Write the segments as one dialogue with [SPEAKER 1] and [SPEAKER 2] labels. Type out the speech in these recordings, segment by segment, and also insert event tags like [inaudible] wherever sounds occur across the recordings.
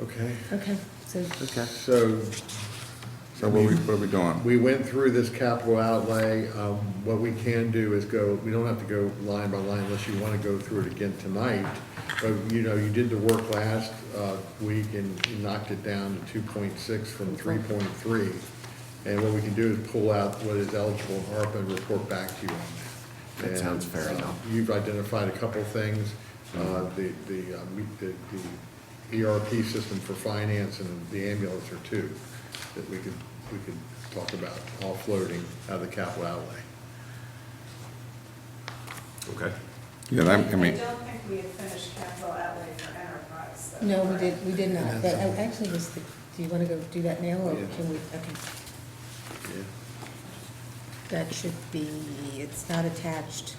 [SPEAKER 1] Okay,
[SPEAKER 2] Okay, so,
[SPEAKER 3] Okay.
[SPEAKER 1] so
[SPEAKER 3] So what are we, what are we doing?
[SPEAKER 1] we went through this capital outlay. Um, What we can do is go, we don't have to go line by line unless you want to go through it again tonight. But, you know, you did the work last uh, week and you knocked it down to 2.6 from 3.3. And what we can do is pull out what is eligible in ARPA and report back to you on that.
[SPEAKER 3] That sounds fair
[SPEAKER 1] And, uh,
[SPEAKER 3] enough.
[SPEAKER 1] You've identified a couple things, uh, the, the, uh, me- the the ERP system for finance and the ambulance are two that we could, we could talk about, all floating out of the capital outlay.
[SPEAKER 4] Okay.
[SPEAKER 3] Yeah, that- I
[SPEAKER 5] I
[SPEAKER 3] mean,
[SPEAKER 5] don't think we had finished capital outlay for enterprise. though,
[SPEAKER 2] no, we
[SPEAKER 5] correct?
[SPEAKER 2] did, we did not, but I actually, was the- do you want to go do that now, or
[SPEAKER 1] Yeah.
[SPEAKER 2] can we, okay. That should be, it's not attached,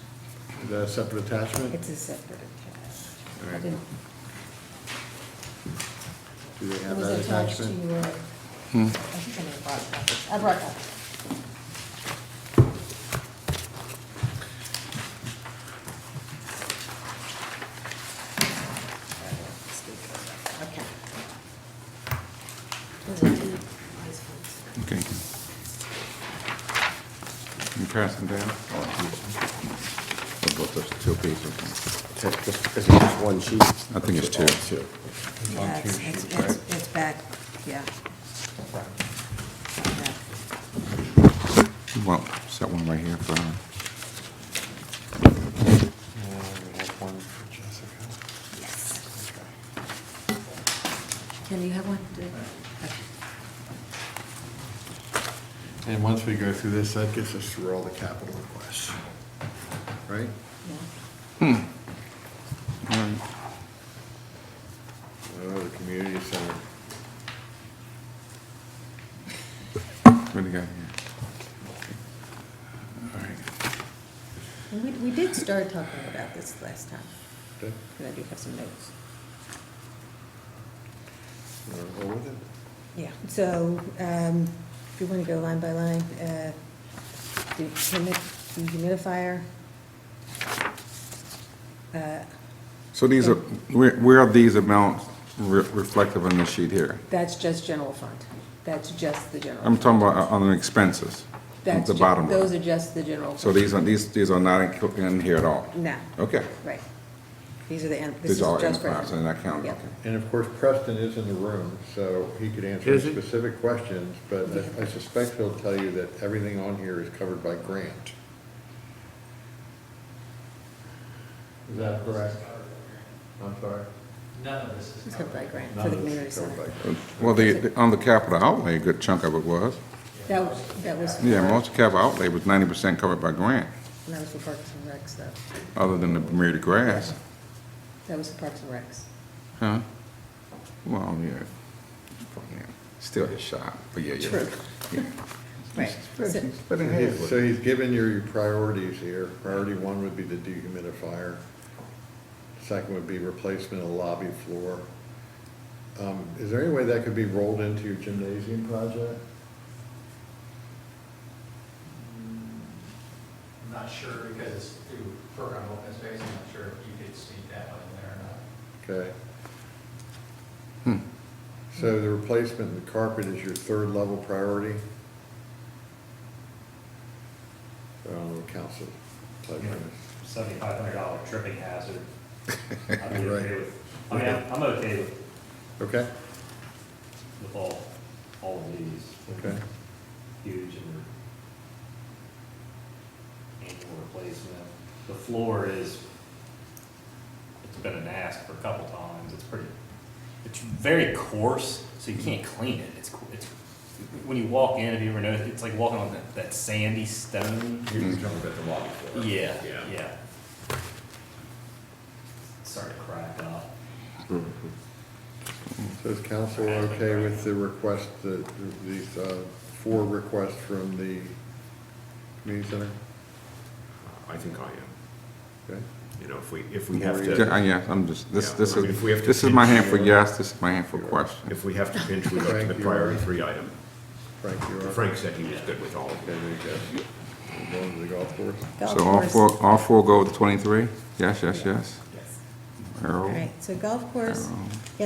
[SPEAKER 1] Is that a separate attachment?
[SPEAKER 2] it's a separate attached.
[SPEAKER 1] All
[SPEAKER 2] I
[SPEAKER 1] right.
[SPEAKER 2] didn't-
[SPEAKER 1] Do they
[SPEAKER 2] It
[SPEAKER 1] have
[SPEAKER 2] was
[SPEAKER 1] that
[SPEAKER 2] attached to
[SPEAKER 1] attachment?
[SPEAKER 2] your, I think I may have brought it up. I brought it up. Okay.
[SPEAKER 3] okay. You pass them down? What about those two pieces?
[SPEAKER 4] Just, is it just one sheet?
[SPEAKER 3] I think it's two.
[SPEAKER 2] Yeah, it's, it's, it's it's back, yeah. Back.
[SPEAKER 3] You want, set one right here for, uh,
[SPEAKER 2] Yes. Kelly, you have one? Do- okay.
[SPEAKER 1] And once we go through this, that gets us through all the capital requests, right?
[SPEAKER 2] Yeah.
[SPEAKER 3] all right.
[SPEAKER 1] Oh, the community center.
[SPEAKER 3] what do you got here?
[SPEAKER 1] All right.
[SPEAKER 2] And we, we did start talking about this last time,
[SPEAKER 1] Okay.
[SPEAKER 2] because I do have some notes.
[SPEAKER 1] We're over then.
[SPEAKER 2] Yeah, so, um, if you wanna go line by line, uh, the humid, the humidifier. uh,
[SPEAKER 3] So these are, where, where are these amounts re- reflective on this sheet here?
[SPEAKER 2] That's just general fund, that's just the general.
[SPEAKER 3] I'm talking about uh, on the expenses,
[SPEAKER 2] That's
[SPEAKER 3] the
[SPEAKER 2] ju-
[SPEAKER 3] bottom
[SPEAKER 2] Those are
[SPEAKER 3] line.
[SPEAKER 2] just the general.
[SPEAKER 3] So
[SPEAKER 2] fund.
[SPEAKER 3] these are, these, these are not included in here at all?
[SPEAKER 2] No,
[SPEAKER 3] Okay.
[SPEAKER 2] right. These are the, en- this is
[SPEAKER 3] These are uh, eh?
[SPEAKER 2] just for.
[SPEAKER 3] enterprise, and that counts,
[SPEAKER 2] Yep.
[SPEAKER 3] okay.
[SPEAKER 1] And of course, Preston is in the room, so he could answer
[SPEAKER 4] Is he?
[SPEAKER 1] specific questions, but I- I suspect he'll tell you that everything on here is covered by grant. Is that correct? I'm sorry?
[SPEAKER 6] None of this is
[SPEAKER 2] It's covered by grant
[SPEAKER 1] None
[SPEAKER 2] for the
[SPEAKER 1] of it's covered
[SPEAKER 2] community
[SPEAKER 1] by
[SPEAKER 2] center.
[SPEAKER 1] grant.
[SPEAKER 3] Well, the, the- on the capital outlay, a good chunk of it was.
[SPEAKER 2] That, was- that was.
[SPEAKER 3] Yeah,
[SPEAKER 2] for-
[SPEAKER 3] most of the capital outlay was ninety percent covered by grant,
[SPEAKER 2] That was for Parks and Recs, though.
[SPEAKER 3] other than the Bermuda grass,
[SPEAKER 2] That was for Parks and Recs.
[SPEAKER 3] huh? Well, yeah, Yeah. still his shot, but yeah, yeah.
[SPEAKER 2] True.
[SPEAKER 3] Yeah.
[SPEAKER 2] [laughs] Right.
[SPEAKER 3] But-
[SPEAKER 2] So-
[SPEAKER 3] But it
[SPEAKER 1] He's- So
[SPEAKER 3] has,
[SPEAKER 1] he's given your priorities here. Priority one would be the dehumidifier. Second would be replacement of lobby floor. Um, Is there any way that could be rolled into your gymnasium project?
[SPEAKER 6] I'm not sure because it's through program open space, I'm not sure if you could see that one in there or not.
[SPEAKER 1] Okay.
[SPEAKER 3] Hmm.
[SPEAKER 1] So the replacement of the carpet is your third level priority? I don't know, council. type of-
[SPEAKER 7] seventy-five hundred dollar tripping hazard. [laughs] I'd be
[SPEAKER 1] Right.
[SPEAKER 7] okay with, I mean, I'm, I'm okay with,
[SPEAKER 1] Okay,
[SPEAKER 7] with all, all of these.
[SPEAKER 1] okay.
[SPEAKER 7] Huge and annual replacement. The floor is, it's been an ask for a couple times, it's pretty, it's very coarse, so you can't clean it, it's, co- it's, when you walk in, if you ever noticed, it's like walking on that, that sandy stone.
[SPEAKER 4] You're just talking about the lobby floor.
[SPEAKER 7] Yeah,
[SPEAKER 4] Yeah.
[SPEAKER 7] yeah. Starting to crack up.
[SPEAKER 1] So is council okay with the request, the- these uh, four requests from the community center?
[SPEAKER 4] I think I am,
[SPEAKER 1] Okay,
[SPEAKER 4] you know, if we, if we have
[SPEAKER 3] Yeah,
[SPEAKER 4] to,
[SPEAKER 3] yeah, I'm just, this,
[SPEAKER 4] Yeah,
[SPEAKER 3] this
[SPEAKER 4] I mean,
[SPEAKER 3] is,
[SPEAKER 4] if we have to
[SPEAKER 3] this is my hand
[SPEAKER 4] pinch
[SPEAKER 3] for
[SPEAKER 4] your-
[SPEAKER 3] yes, this is my hand for question.
[SPEAKER 4] if we have to pinch, we go to the
[SPEAKER 1] Frank, you
[SPEAKER 4] priority
[SPEAKER 1] are-
[SPEAKER 4] three item.
[SPEAKER 1] Frank, you are?
[SPEAKER 4] Frank said he was good with all of
[SPEAKER 1] Okay,
[SPEAKER 4] them.
[SPEAKER 1] there you go. Going to the golf course?
[SPEAKER 2] Golf
[SPEAKER 3] So all
[SPEAKER 2] course.
[SPEAKER 3] four, all four go with twenty-three? Yes, yes, yes.
[SPEAKER 2] Yes.
[SPEAKER 3] Errol?
[SPEAKER 2] All right, so golf course,
[SPEAKER 3] Errol.